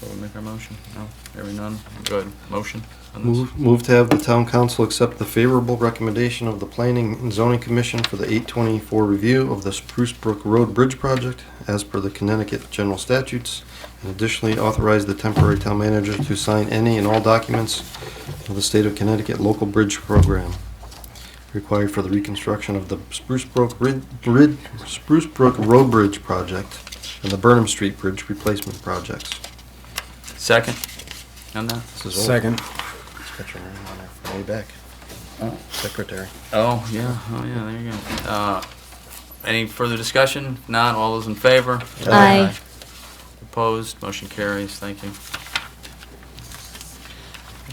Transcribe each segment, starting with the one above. So we make our motion? No, hearing none. Go ahead, motion on this? Move, move to have the town council accept the favorable recommendation of the Planning and Zoning Commission for the 824 review of the Spruce Brook Road Bridge project as per the Connecticut general statutes, and additionally authorize the temporary town manager to sign any and all documents of the state of Connecticut local bridge program required for the reconstruction of the Spruce Brook Rid, Rid, Spruce Brook Road Bridge project and the Burnham Street Bridge replacement projects. Second on that? This is old. Second. It's got your name on there from way back. Secretary. Oh, yeah, oh, yeah, there you go. Uh, Any further discussion? None, all those in favor? Aye. Aye. Opposed, motion carries, thank you.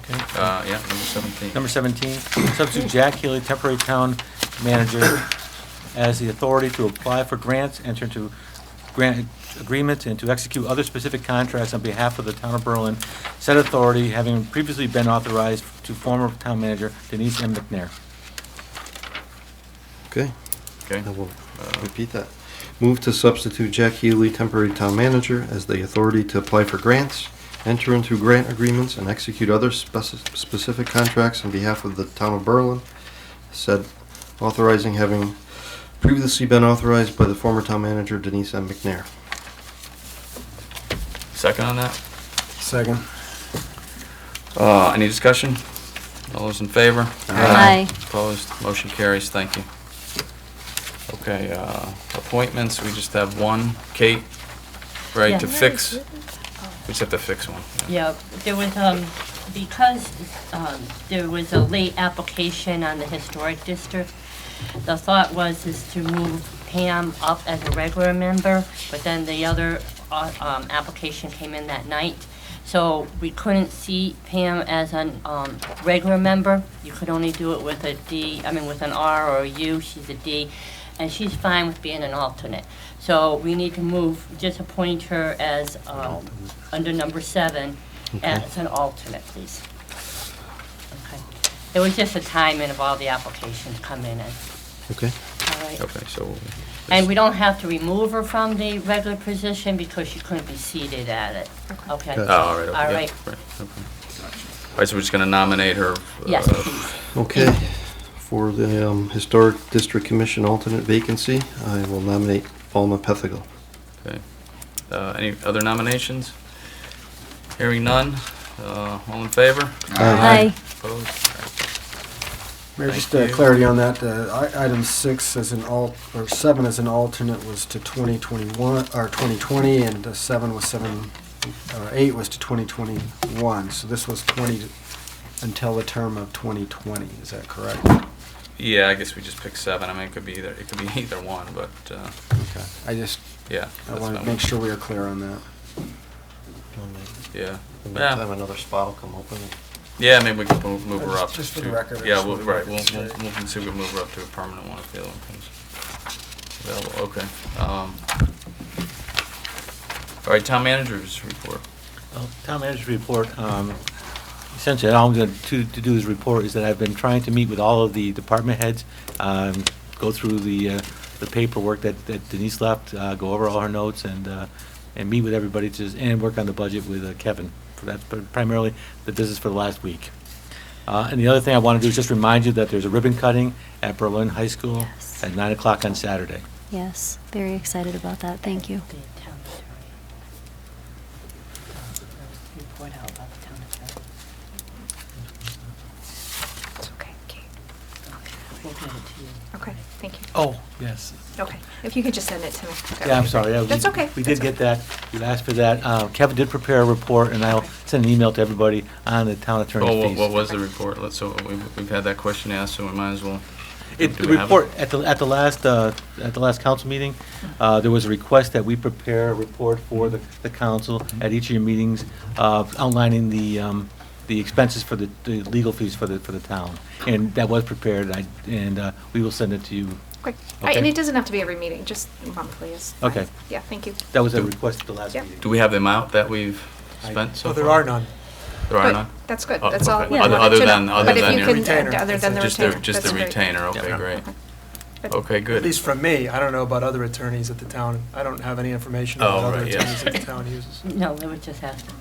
Okay. Uh, yeah, number 17. Number 17, substitute Jack Healy, temporary town manager, as the authority to apply for grants, enter into grant agreements, and to execute other specific contracts on behalf of the town of Berlin. Said authority having previously been authorized to former town manager Denise M. McNair. Okay, Okay, I will Uh, repeat that. Move to substitute Jack Healy, temporary town manager, as the authority to apply for grants, enter into grant agreements, and execute other speci- specific contracts on behalf of the town of Berlin. Said authorizing having previously been authorized by the former town manager Denise M. McNair. second on that? Second. Uh, Any discussion? All those in favor? Aye. Aye. Opposed, motion carries, thank you. Okay, uh, appointments, we just have one, Kate, right, to Yeah. fix, we just have to fix one. Yeah, there was, um, because, um, there was a late application on the historic district, the thought was is to move Pam up as a regular member, but then the other, uh, um, application came in that night. So we couldn't see Pam as an, um, regular member. You could only do it with a D, I mean, with an R or a U, she's a D, and she's fine with being an alternate. So we need to move, just appoint her as, um, under number seven, as an alternate, please. Okay. It was just the timing of all the applications coming in, Okay? all right? Okay, so. And we don't have to remove her from the regular position because she couldn't be seated at it. Okay? Oh, all right. okay, All yeah, right. Right, okay. All right, so we're just gonna nominate her. Yes, uh, please. Okay, for the um, Historic District Commission alternate vacancy, I will nominate Alma Pethigal. Okay. Uh, Any other nominations? Hearing none, uh, all in favor? Aye. Opposed? Mayor, Thank just uh, you. clarity on that, uh, i- item six as an alt, or seven as an alternate was to 2021, or 2020, and uh, seven was seven, or eight was to 2021. So this was 20 until the term of 2020, is that correct? Yeah, I guess we just picked seven, I mean, it could be either, it could be either one, but, uh, Okay. I just, yeah. I that's wanted to fine. make sure we are clear on that. Yeah, In the Yeah. meantime, another spot will come open. yeah, maybe we can move move her Just- up. just for to- the record, I Yeah, just we'll, wanted to right, make we'll, it we'll straight. we'll see if we can move her up to a permanent one if the other one comes available, okay. Um, All right, town managers report. Well, Town manager's report, um, essentially, all I'm going to to do is report is that I've been trying to meet with all of the department heads, um, go through the uh, the paperwork that that Denise left, uh, go over all her notes, and uh, and meet with everybody, to and work on the budget with uh, Kevin. That's primarily the business for the last week. Uh, And the other thing I want to do is just remind you that there's a ribbon cutting at Berlin High School Yes. at 9 o'clock on Saturday. Yes, very excited about that, thank you. The town attorney. Report out about the town attorney. It's okay, Kate. We'll give it to you. Okay, thank you. Oh, yes. Okay, if you could just send it to me. that Yeah, I'm would- sorry. yeah, we- That's okay. We that's did get okay. that. You asked for that. Uh, Kevin did prepare a report, and I'll Okay. send an email to everybody on the town Well, Oh, what- attorney's what fees. was the report? Let's, so we- we've had that question asked, so we might as well. It- do The we have it? report, at the, at the last, uh, at the last council meeting, uh, there was a request that we prepare a report for the, the council at each of your meetings uh, outlining the, um, the expenses for the, the legal fees for the, for the town. And that was prepared, I- and uh, we will send it to you. Okay. I- And Okay. it doesn't have to be every meeting, just monthly is. fine. Okay. Yeah, thank you. That was a request at the last Yep. meeting. Do we have the amount that we've spent Oh, so far? There are But none? That's good, Oh, that's all. okay. I Other- wanted other to know. than- other than your But if you Retainer. can, other than the Just the, retainer. just the that's great. retainer, okay, Yeah. great. Good. Okay, At good. least from me, I don't know about other attorneys at the town. I don't have any information Oh, about other right, yeah. attorneys that the town uses. No, we were just asking.